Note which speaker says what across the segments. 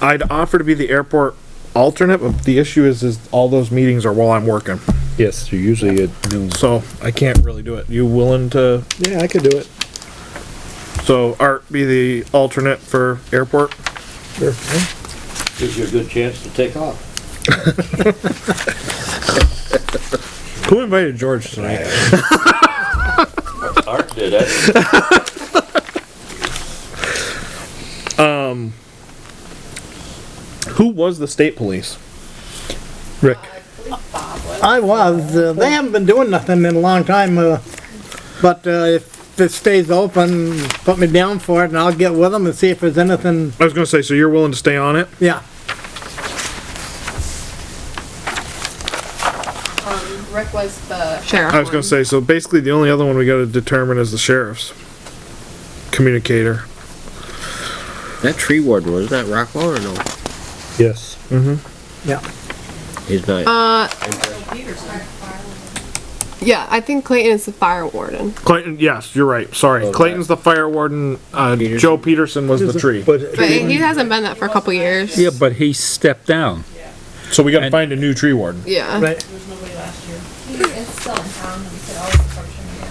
Speaker 1: I'd offer to be the airport alternate, but the issue is, is all those meetings are while I'm working,
Speaker 2: Yes, you're usually at noon.
Speaker 1: so I can't really do it. You willing to,
Speaker 2: Yeah, I could do it.
Speaker 1: so Art be the alternate for airport?
Speaker 2: Sure.
Speaker 3: Gives you a good chance to take off.
Speaker 1: Who invited George tonight?
Speaker 3: Art did it.
Speaker 1: Who was the state police? Rick.
Speaker 4: I was, uh, they haven't been doing nothing in a long time, uh, but, uh, if it stays open, put me down for it and I'll get with them and see if there's anything,
Speaker 1: I was gonna say, so you're willing to stay on it?
Speaker 4: yeah.
Speaker 5: Um, Rick was the sheriff.
Speaker 1: I was gonna say, so basically the only other one we gotta determine is the sheriff's communicator.
Speaker 6: That tree ward was that Rockwell or no?
Speaker 2: Yes.
Speaker 4: Yeah.
Speaker 6: He's not.
Speaker 5: Yeah, I think Clayton is the fire warden.
Speaker 1: Clayton, yes, you're right, sorry. Clayton's the fire warden, uh, Joe Peterson was the tree.
Speaker 5: But
Speaker 2: But,
Speaker 5: he hasn't been that for a couple years.
Speaker 7: Yeah, but he stepped down.
Speaker 1: So we gotta
Speaker 7: and-
Speaker 1: find a new tree warden.
Speaker 5: Yeah.
Speaker 4: Right.
Speaker 8: There was nobody last year. He is still in town, and we could always approach him again.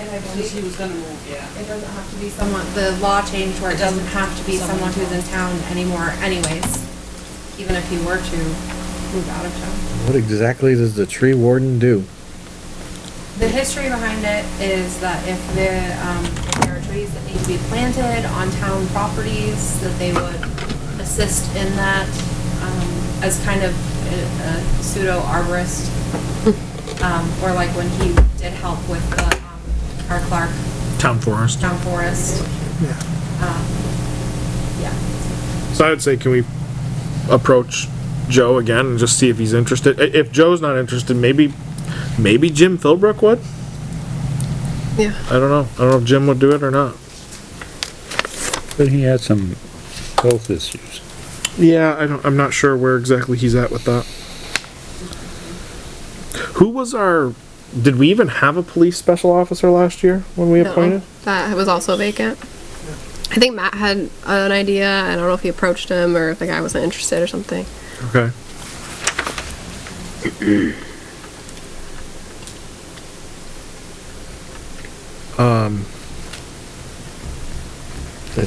Speaker 8: And I believe he was gonna move, yeah.
Speaker 9: It doesn't have to be someone, the law changed where it doesn't have to be someone who's in town anymore anyways, even if he were to move out of town.
Speaker 2: what exactly does the tree warden do?
Speaker 9: The history behind it is that if the, um, if there are trees that need to be planted on town properties, that they would assist in that, um, as kind of a a pseudo arborist. Um, or like when he did help with the, um, our Clark
Speaker 1: Town forest.
Speaker 9: town forest. Um, Yeah.
Speaker 1: So I would say, can we approach Joe again and just see if he's interested? I- If Joe's not interested, maybe, maybe Jim Philbrook would?
Speaker 5: Yeah.
Speaker 1: I don't know. I don't know if Jim would do it or not.
Speaker 7: But he had some health issues.
Speaker 1: Yeah, I don't, I'm not sure where exactly he's at with that. Who was our, did we even have a police special officer last year when we
Speaker 5: No,
Speaker 1: appointed?
Speaker 5: That was also vacant. I think Matt had an idea. I don't know if he approached him or if the guy wasn't interested or something.
Speaker 1: Okay.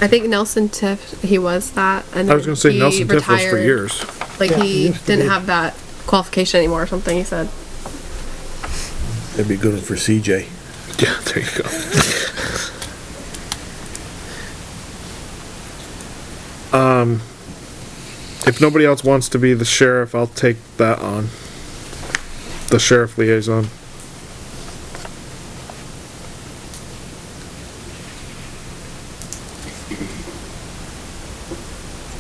Speaker 5: I think Nelson Tiff, he was that. And
Speaker 1: I was gonna say
Speaker 5: he
Speaker 1: Nelson Tiff was for
Speaker 5: retired.
Speaker 1: years.
Speaker 5: Like
Speaker 4: Yeah, he
Speaker 5: he
Speaker 4: used to
Speaker 5: didn't
Speaker 4: be.
Speaker 5: have that qualification anymore or something. He said.
Speaker 2: That'd be good for CJ.
Speaker 1: Yeah, there you go. um, Um, if nobody else wants to be the sheriff, I'll take that on. The sheriff liaison.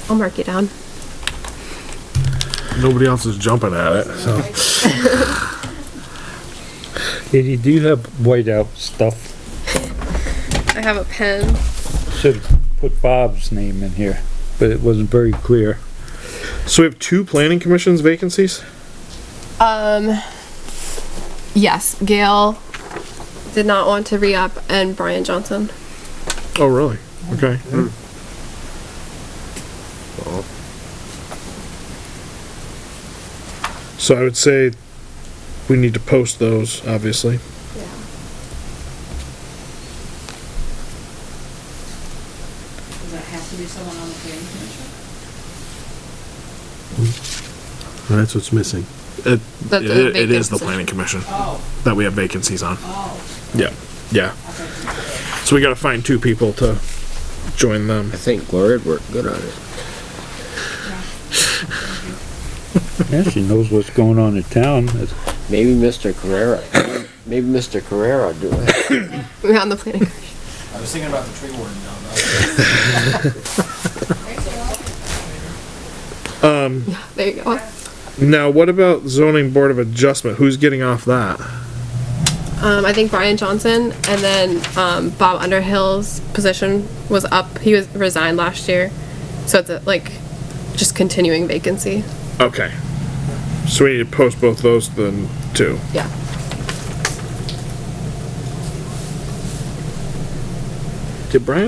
Speaker 5: I'll mark you down.
Speaker 1: Nobody else is jumping at it, so.
Speaker 7: Did he do have whiteout stuff?
Speaker 5: I have a pen.
Speaker 7: Should've put Bob's name in here, but it wasn't very clear.
Speaker 1: So we have two planning commissions vacancies?
Speaker 5: Um, yes, Gail did not want to re-up and Brian Johnson.
Speaker 1: Oh, really? Okay. Hmm. So I would say we need to post those, obviously.
Speaker 8: Does that have to be someone on the planning commission?
Speaker 10: That's what's missing.
Speaker 1: It,
Speaker 5: That's a
Speaker 1: it- it is
Speaker 5: vacant
Speaker 1: the
Speaker 5: position.
Speaker 1: planning commission
Speaker 8: Oh,
Speaker 1: that we have vacancies on.
Speaker 8: oh,
Speaker 1: Yeah, yeah.
Speaker 8: okay.
Speaker 1: So we gotta find two people to join them.
Speaker 6: I think Gloria would work good on it.
Speaker 7: Yeah, she knows what's going on in town. That's-
Speaker 6: Maybe Mr. Carrera. Maybe Mr. Carrera would do it.
Speaker 5: We're on the planning.
Speaker 3: I was thinking about the tree warden now.
Speaker 1: Um,
Speaker 5: There you go.
Speaker 1: Now, what about zoning board of adjustment? Who's getting off that?
Speaker 5: Um, I think Brian Johnson and then um, Bob Underhill's position was up. He was resigned last year, so it's a, like just continuing vacancy.
Speaker 1: Okay. So we need to post both those then too.
Speaker 5: Yeah.
Speaker 1: Did Brian